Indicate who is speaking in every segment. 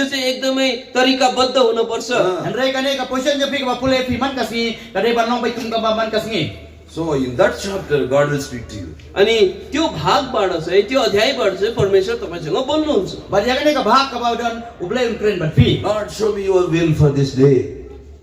Speaker 1: त्यो चाहिँ एकदमै तरिकाबद्ध हुनुपर्छ
Speaker 2: अँ।
Speaker 3: Andrei kane ka position je phi ka pule phi man kasni kane banong bai tum ka ba man kasni.
Speaker 2: So in that chapter, God will speak to you.
Speaker 1: अनि त्यो भागबाट चाहिँ त्यो अध्यायबाट चाहिँ परमेश्वर तपाईँसँग बोल्नुहुन्छ
Speaker 3: Ba dia kane ka bhag ka ba don ublai un kren ban phi.
Speaker 2: Lord, show me your will for this day.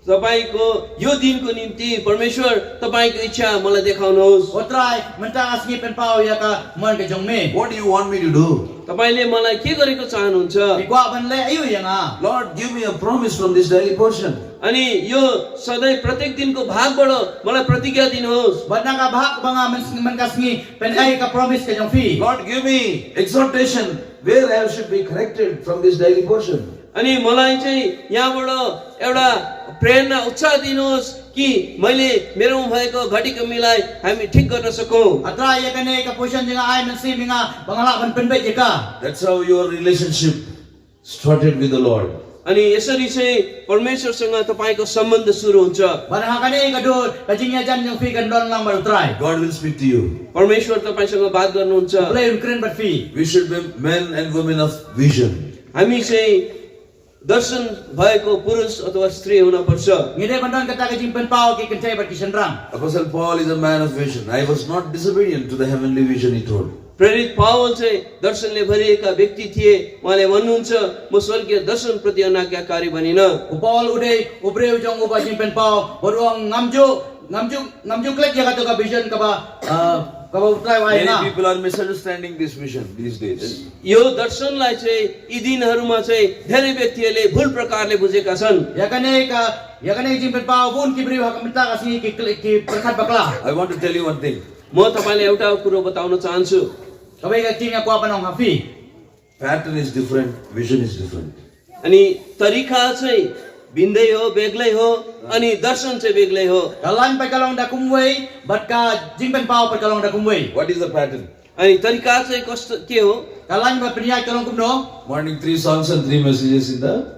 Speaker 1: तपाईँको यो दिनको निम्ति परमेश्वर तपाईँको इच्छा मलाई देखाउनुहोस्
Speaker 3: Otrai mentang asni pen pau ya ka man ka jong me.
Speaker 2: What do you want me to do?
Speaker 1: तपाईँले मलाई के गरेको चाहनुहुन्छ
Speaker 3: Pi kwa ban le ayu ya yang a.
Speaker 2: Lord, give me a promise from this daily portion.
Speaker 1: अनि यो सधैँ प्रत्येक दिनको भागबाट मलाई प्रतिज्ञा दिनुहोस्
Speaker 3: Bana ka bhag banga man man kasni pen ai ka promise ka jong phi.
Speaker 2: Lord, give me exhortation where I should be corrected from this daily portion.
Speaker 1: अनि मलाई चाहिँ यहाँबाट एउटा प्रेरणा उत्साह दिनुहोस् कि मैले मेरोमा भएको घटी कमीलाई हामी ठिक गर्न सकौँ
Speaker 3: Atrai ya kane ka position jeng ai man si minga bangala ban pen bai je ka.
Speaker 2: That's how your relationship started with the Lord.
Speaker 1: अनि यसरी चाहिँ परमेश्वरसँग तपाईँको सम्बन्ध सुरु हुन्छ
Speaker 3: Bana ha kane ka do ka jing ya jan jong phi kan don lang ba utrai.
Speaker 2: God will speak to you.
Speaker 1: परमेश्वर तपाईँसँग बात गर्नुहुन्छ
Speaker 3: Ublai un kren ban phi.
Speaker 2: We should be men and women of vision.
Speaker 1: हामी चाहिँ दर्शन भएको पुरुष अथवा स्त्री हुनपर्छ
Speaker 3: Ngide ban don kata ka jing pen pau ki kan chai ba ki sen rang.
Speaker 2: Apostle Paul is a man of vision. I was not disobedient to the heavenly vision, he told.
Speaker 1: प्रेरित पावल चाहिँ दर्शनले भरिएका व्यक्ति थिए उहाँले भन्नुहुन्छ म स्वर्गीय दर्शनप्रति अनाज्ञाकारी भनिन
Speaker 3: Upol uday ubreu jong uba jing pen pau boruang ngamju ngamju ngamju klek ya kata ka vision ka ba ah, ka ba utrai wai na.
Speaker 2: Many people are misunderstanding this vision these days.
Speaker 1: यो दर्शनलाई चाहिँ यी दिनहरूमा चाहिँ धेरै व्यक्तिहरूले भुल प्रकारले बुझेका छन्
Speaker 3: Ya kane ka ya kane jing pen pau bun ki breu ha kamta ka si ki klek ki perkat bakla.
Speaker 2: I want to tell you one thing.
Speaker 1: म तपाईँलाई एउटा कुरो बताउन चाहन्छु
Speaker 3: Kabai ka king aku apa nong hafi.
Speaker 2: Pattern is different, vision is different.
Speaker 1: अनि तरिका चाहिँ भिन्दै हो बेग्लै हो अनि दर्शन चाहिँ बेग्लै हो
Speaker 3: Kalan pa kalong da kumwei bat ka jing pen pau pa kalong da kumwei.
Speaker 2: What is the pattern?
Speaker 1: अनि तरिका चाहिँ कस्तो के हो
Speaker 3: Kalan ba priya kalong kumno.
Speaker 2: Morning three songs and three messages in the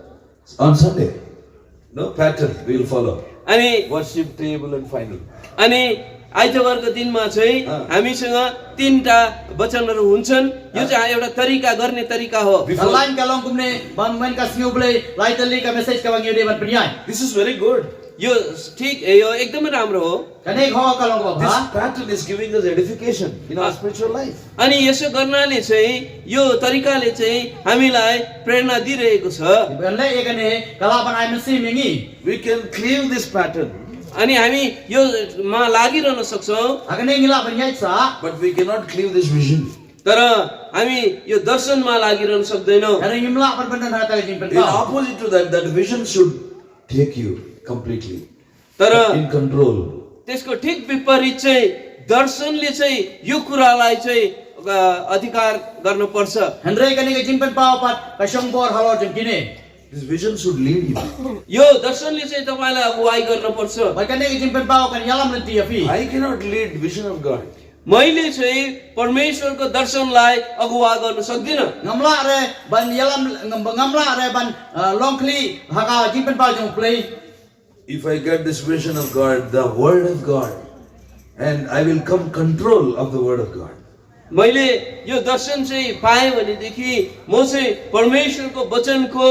Speaker 2: on Sunday. No pattern we will follow.
Speaker 1: अनि
Speaker 2: Worship table and final.
Speaker 1: अनि आइतबारको दिनमा चाहिँ
Speaker 2: अँ।
Speaker 1: हामीसँग तिनवटा वचनहरू हुन्छन् यो चाहिँ एउटा तरिका गर्ने तरिका हो
Speaker 2: Before-
Speaker 3: Kalan kalong kumne bang men ka sniu blei lai tali ka message ka bang yude ban priya.
Speaker 2: This is very good.
Speaker 1: यो ठिक यो एकदमै राम्रो हो
Speaker 3: Kane ho Kan, eh, kalong ha? ba ba.
Speaker 2: This pattern is giving us edification in our spiritual life.
Speaker 1: अनि यसो गर्नाले चाहिँ यो तरिकाले चाहिँ हामीलाई प्रेरणा दिइरहेको छ
Speaker 3: Ibanle ya kane kalaban ai mesi mingi.
Speaker 2: We can cleave this pattern,
Speaker 1: अनि हामी योमा लागिरहन सक्छौँ
Speaker 3: Agane ngila banyai sa.
Speaker 2: but we cannot cleave this vision.
Speaker 1: तर हामी यो दर्शनमा लागिरहन सक्दैनौँ
Speaker 3: Ada ngimla perbendan harta ke jimpen
Speaker 2: In
Speaker 3: kau.
Speaker 2: opposite to that, that vision should take you completely
Speaker 1: तर
Speaker 2: in control.
Speaker 1: त्यसको ठिक विपरीत चाहिँ दर्शनले चाहिँ यो कुरालाई चाहिँ अ, अधिकार गर्नुपर्छ
Speaker 3: Hendrai kane ke jimpen pau pat kasong bor halor jengkine.
Speaker 2: This vision should lead you.
Speaker 1: यो दर्शनले चाहिँ तपाईँलाई अगुवाई गर्नुपर्छ
Speaker 3: Bai kane ke jimpen pau kan yalam lenti ya fi.
Speaker 2: I cannot lead vision of God.
Speaker 1: मैले चाहिँ परमेश्वरको दर्शनलाई अगुवा गर्न सक्दिनँ
Speaker 3: Ngamla re ban yalam ngamla re ban uh, longkli haka jimpen pau jong play.
Speaker 2: If I get this vision of God, the Word of God, and I will come control of the Word of God.
Speaker 1: मैले यो दर्शन चाहिँ पाएँ भनेदेखि म चाहिँ परमेश्वरको वचनको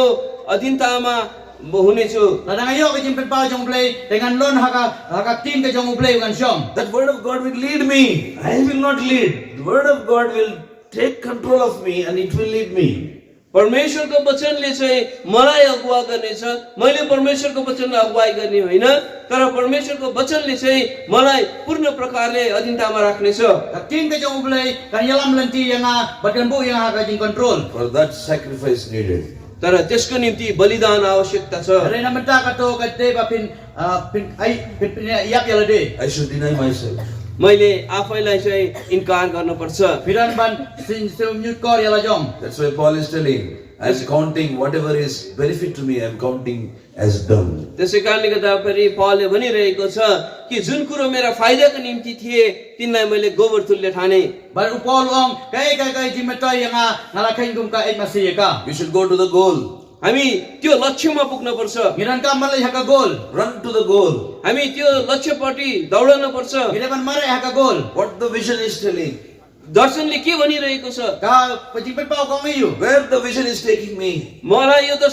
Speaker 1: अधीनतामा म हुनेछु
Speaker 3: Ladang ayo ke jimpen pau jong play dengan lon haka haka tim ke jong play kan syong.
Speaker 2: That Word of God will lead me. I will not lead. The Word of God will take control of me and it will lead me.
Speaker 1: परमेश्वरको वचनले चाहिँ मलाई अगुवा गर्नेछ मैले परमेश्वरको वचनलाई अगुवाई गर्ने होइन तर परमेश्वरको वचनले चाहिँ मलाई पूर्ण प्रकारले अधीनतामा राख्नेछ
Speaker 3: Tim ke jong play kan yalam lenti yang a bat kan bu yang haka jing control.
Speaker 2: For that sacrifice needed.
Speaker 1: तर त्यसको निम्ति बलिदान आवश्यकता छ
Speaker 3: Rin naman ta kato kate ba pin ah, pin ay pin pin yak yalade.
Speaker 2: I should deny myself.
Speaker 1: मैले आफैलाई चाहिँ इन्कार गर्नुपर्छ
Speaker 3: Piran ban sin sin nyut kor yala jong.
Speaker 2: That's why Paul is telling, I'm counting whatever is benefit to me, I'm counting as done.
Speaker 1: त्यसै कारणले गर्दा फेरि पावलले भनिरहेको छ कि जुन कुरो मेरा फाइदाको निम्ति थिए तिनलाई मैले गोबर तुल्य ठाने
Speaker 3: Bar upol ong kai kai kai jimetoy yang a ngalakain kum ka ek masih ya ka.
Speaker 2: We should go to the goal.
Speaker 1: हामी त्यो लक्ष्यमा पुग्नुपर्छ
Speaker 3: Ngiran ka malay haka gol.
Speaker 2: Run to the goal.
Speaker 1: हामी त्यो लक्ष्यपट्टि दौडन पर्छ
Speaker 3: Ngiran ban marai haka gol.
Speaker 2: What the vision is telling,
Speaker 1: दर्शनले के भनिरहेको छ
Speaker 3: Ka pajimpen pau kong iyo.
Speaker 2: where the vision is taking me,
Speaker 1: मलाई यो त